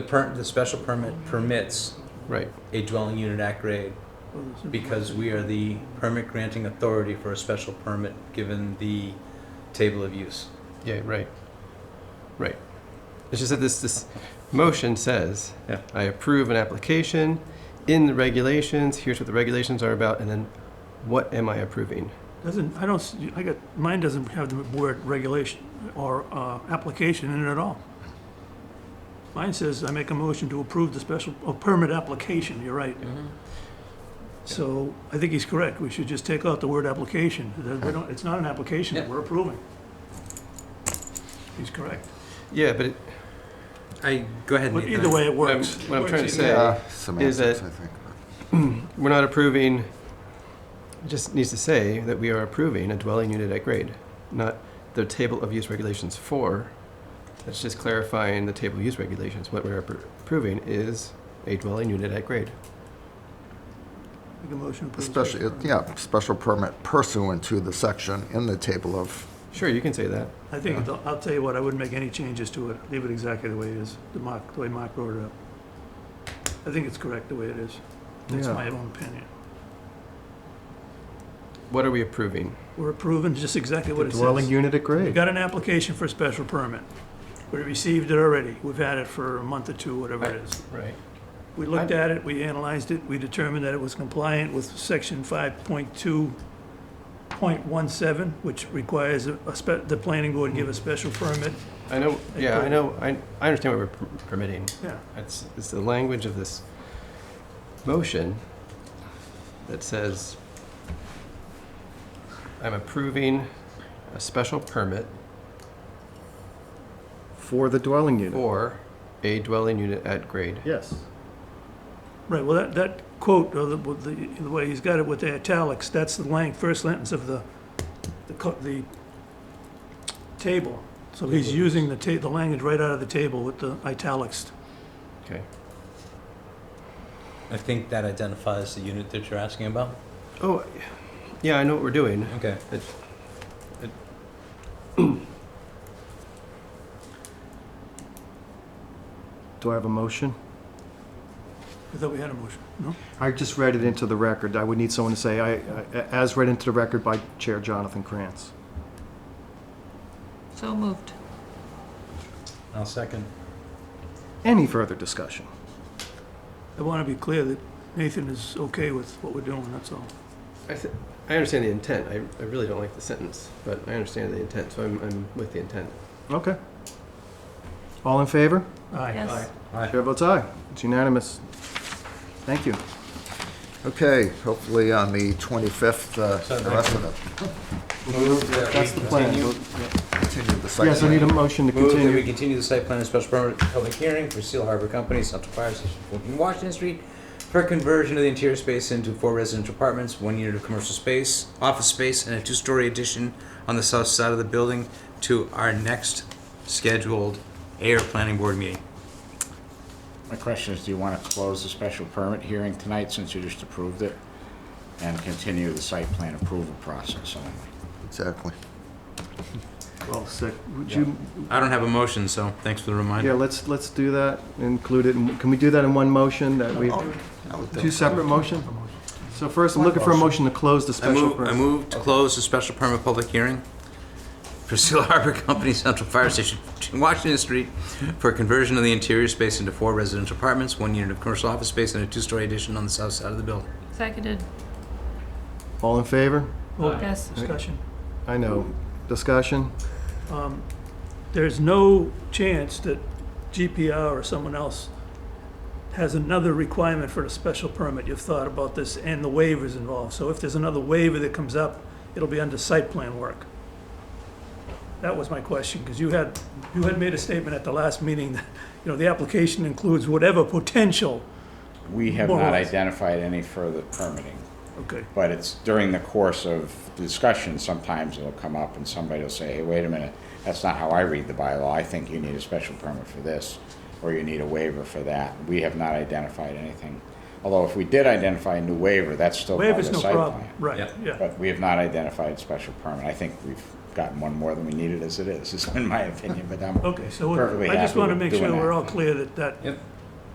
The per, the special permit permits Right. a dwelling unit at grade because we are the permit granting authority for a special permit given the table of use. Yeah, right. Right. It's just that this, this motion says, Yeah. I approve an application in the regulations, here's what the regulations are about, and then what am I approving? Doesn't, I don't, s- I got, mine doesn't have the word regulation or uh, application in it at all. Mine says, I make a motion to approve the special, oh, permit application, you're right. Mm-hmm. So I think he's correct, we should just take out the word application, That- we don't- it's not an application that Yeah. we're approving. He's correct, Yeah, but it, I, go ahead. but Nathan. either way, it what I'm- works. what I'm Works trying to either say- way. Uh, Semantics, that- I think. we're not approving, it just needs to say that we are approving a dwelling unit at grade, not the table of use regulations for. That's just clarifying the table of use regulations. What we're appro- approving is a dwelling unit at grade. Make a motion to approve. the Especially, permit. yeah, special permit pursuant to the section in the table of, Sure, you can say that. I think, it'll- I'll tell you what, I wouldn't make any changes to it, leave it exactly the way it is, the Mark, the way Mark wrote it up. I think it's correct the way it is, that's Yeah. my own opinion. What are we approving? We're approving just exactly what it Dwelling says. unit at We grade. got an application for a special permit, we received it already, we've had it for a month or two, whatever it is. Right. We looked at it, we analyzed it, we determined that it was compliant with section five point two point one seven, which requires a, a spe- the planning board give a special permit, I know, Like yeah, what- I know, I, I understand what we're per- permitting. yeah. It's, it's the language of this motion that says, I'm approving a special permit For the dwelling unit. for a dwelling unit at grade. Yes. Right, well, that, that quote, or the, with the, the way he's got it with the italics, that's the lang, first sentence of the, the, co- the table. So he's using the ta, the language right out of the table with the italics. Okay. I think that identifies the unit that you're asking about. Oh, yeah, I know what we're doing. Okay. Do I have a motion? I thought we had a motion, no? I just read it into the record. I would need someone to say, I, I- as read into the record by Chair Jonathan Krantz. So moved. I'll second. Any further discussion? I want to be clear that Nathan is okay with what we're doing, that's all. I, th- I understand the intent. I, I really don't like the sentence, but I understand the intent, so I'm, I'm with the intent. Okay. All in favor? Aye. Yes. Aye. Chair votes aye. It's unanimous. Thank you. okay, hopefully on the 25th, uh, the rest of it, That's the plan. continue the site. Yes, I need a motion to Move that we continue. continue the site plan and special permit public hearing for Seal Harbor Company, Central Fire Station, 14 Washington Street, for conversion of the interior space into four residential apartments, one unit of commercial space, office space, and a two-story addition on the south side of the building to our next scheduled air planning board meeting. My question is, do you want to close the special permit hearing tonight since you just approved it? And continue the site plan approval process only? Exactly. Well, sec, Oh, would you, I don't have a motion, so thanks for the yeah, reminder. let's, let's do that, include it. in- Can we do that in one motion that we, I would two think- separate motion? So first, I'm looking for a motion to close the I special move, permit. I move to close the special permit public hearing for Seal Harbor Company Central Fire Station, Washington Street, for conversion of the interior space into four residential apartments, one unit of commercial office space, and a two-story addition on the south side of the building. Seconded. All in favor? Oh, Yes. Discussion. I know. Discussion? There's no chance that GPR or someone else has another requirement for a special permit. You've thought about this and the waivers involved. So if there's another waiver that comes up, it'll be under site plan work. That was my question, because you had, you had made a statement at the last meeting that, you know, the application includes whatever potential. We have More or not less. identified any further permitting, Okay, but it's during the course of discussion, sometimes it'll come up and somebody will say, hey, wait a minute, that's not how I read the bylaw. I think you need a special permit for this, or you need a waiver for that. We have not identified anything. Although if we did identify a new waiver, that's still part of waiver's the no site problem, plan. right, Yeah. yeah. But we have not identified special permit. I think we've gotten one more than we needed as it is, is in my opinion, but I'm Okay, so perfectly I just happy want to with make doing sure that. we're all clear that that Yep.